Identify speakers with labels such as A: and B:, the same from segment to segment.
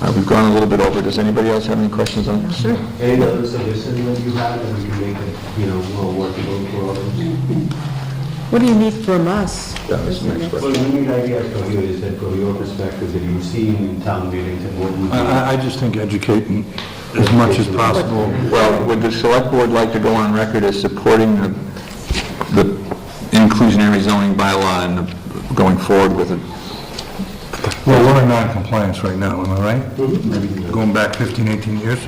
A: Uh, We've gone a little bit over. Does anybody else have any questions on this? Sure.
B: Any other suggestions that you have, and we can make it, you know, more workable for others?
C: What do you need from us?
A: That was the next
B: Well,
A: question.
B: the need idea from you is that from your perspective, that you've seen in town meetings and what
D: Uh,
B: would be...
D: I, I just think educating as much as possible.
A: Well, would the select board like to go on record as supporting the the inclusionary zoning bylaw and the- going forward with it?
D: Well, we're in non-compliance right now, am I right?
B: Mm-hmm.
D: Going back 15, 18 years,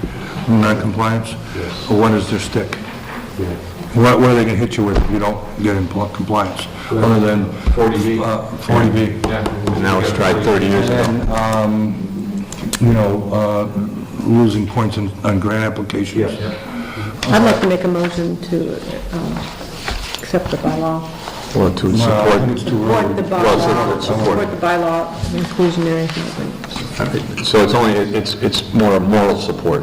D: we're in non-compliance?
B: Yes.
D: Or What is their stick?
B: Yeah.
D: What, what are they gonna hit you with if you don't get in pl- compliance, other than?
B: 40B.
D: Uh, 40B.
A: Now it's tried 30 years ago.
D: And, um, you know, uh, losing points on, on grant applications.
B: Yeah.
C: I'd like to make a motion to um, accept the bylaw.
A: Or to
D: Well, I think
A: support?
D: it's too
C: Support the
D: early.
C: bylaw,
A: support, support.
C: support the bylaw inclusionary.
A: So it's only, it's, it's more a moral support,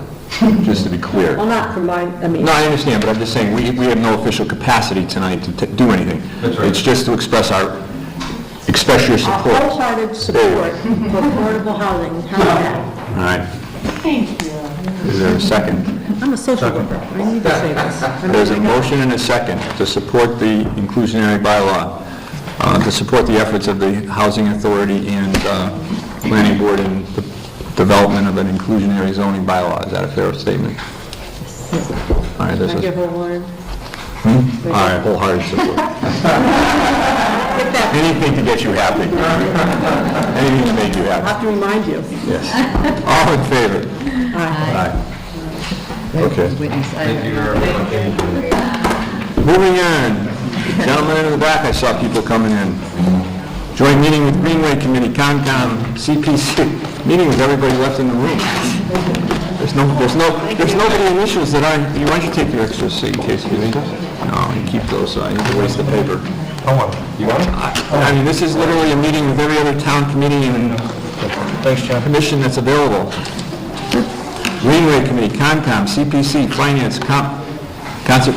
A: just to be clear.
C: Well, not from my, I mean,
A: No, I understand, but I'm just saying, we, we have no official capacity tonight to t- do anything.
B: That's right.
A: It's just to express our, express your
C: a
A: support. All
C: wholehearted support for affordable housing. How's that?
A: right. Thank you. Is there a second?
C: I'm a social worker. I need to say this. I mean,
A: There's a
C: I got-
A: motion and a second to support the inclusionary bylaw, uh, to support the efforts of the Housing Authority and uh, Planning Board in the development of an inclusionary zoning bylaw. Is that a fair statement? All right, there's
C: I give
A: a,
C: wholehearted.
A: all right, wholehearted support.
C: Get that,
A: Anything to get you happy. Anything to make you happy.
C: I have to remind you.
A: Yes. All in favor? Aye. Okay.
E: Witness, I-
A: Moving on. Gentlemen in the back, I saw people coming in. Joint meeting with Greenway Committee, Concom, CPC. Meeting with everybody left in the room. There's no, there's no, there's nobody initials that I, you why don't you take your extra seat in case we need them? No, you keep those, I need to waste the paper.
D: I want-
A: You want it? I mean, this is literally a meeting with every other town committee and
D: Thanks, John.
A: commission that's available. Greenway Committee, Concom, CPC, Finance, Com, Concert,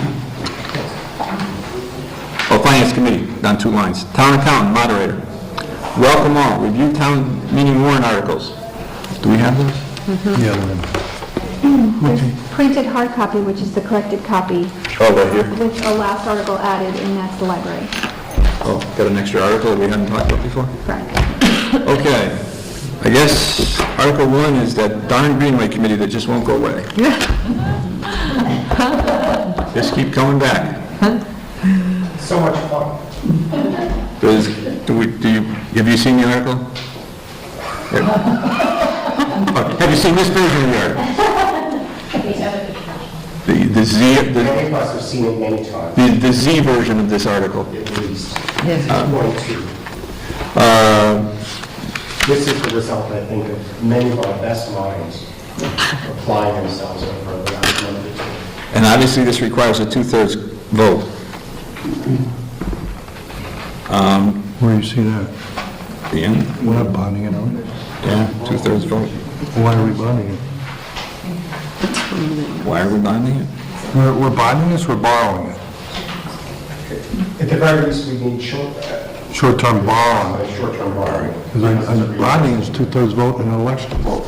A: oh, Finance Committee, down two lines. Town Accountant, Moderator. Welcome all, review town meeting warrant articles. Do we have those?
D: Yeah, Lynn.
F: There's printed hard copy, which is the corrected copy,
A: Oh, right here.
F: with a last article added, and that's the library.
A: Oh, got an extra article that we haven't talked about before?
F: Correct.
A: Okay, I guess Article One is that darn Greenway Committee that just won't go away. Just keep coming back. So much fun. Does, do we, do you, have you seen the article? Yeah. Oh, Have you seen this version of the article? The, the Z, the,
G: Many of us have seen it many times,
A: the- the Z version of this article.
G: at least
E: yes.
G: one or two. This is the result, I think, of many of our best minds applying themselves over the last month or two.
A: And obviously, this requires a two-thirds vote.
D: Where you see that?
A: Ian?
D: We're not bonding it, are we?
A: Yeah, two-thirds vote.
D: Why are we bonding it?
A: Why are we bonding it?
D: We're, we're bonding this, we're borrowing it.
G: At the very least, we need short, uh,
D: Short-term borrowing.
G: short-term borrowing.
D: Because I- I- Bonding is two-thirds vote and an election vote.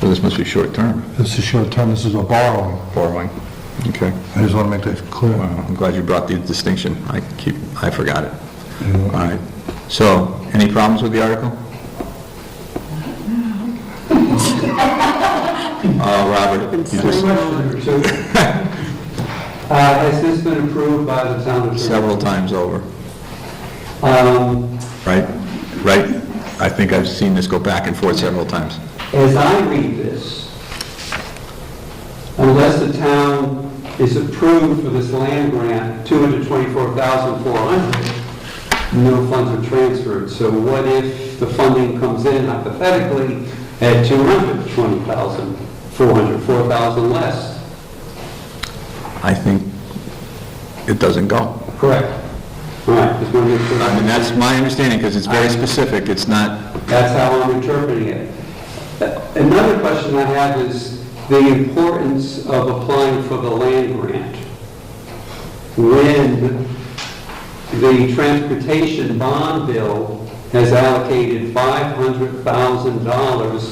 A: So this must be short-term
D: This is short-term, this is a borrowing.
A: borrowing. Okay.
D: I just want to make that clear.
A: Well, I'm glad you brought the distinction. I keep, I forgot it. All right. So, any problems with the article? Oh, Robert, you just,
H: Uh, Has this been approved by the town attorney?
A: several times over,
H: Um,
A: right? Right? I think I've seen this go back and forth several times.
H: As I read this, unless the town is approved for this land grant, 224,400, no funds are transferred. So what if the funding comes in hypothetically at 220,400, 4,000 less?
A: I think it doesn't go.
H: Correct. All right, just want to make sure.
A: I mean, that's my understanding, because it's very specific. It's not,
H: That's how I'm interpreting it. Another question I have is the importance of applying for the land grant when the transportation bond bill has allocated $500,000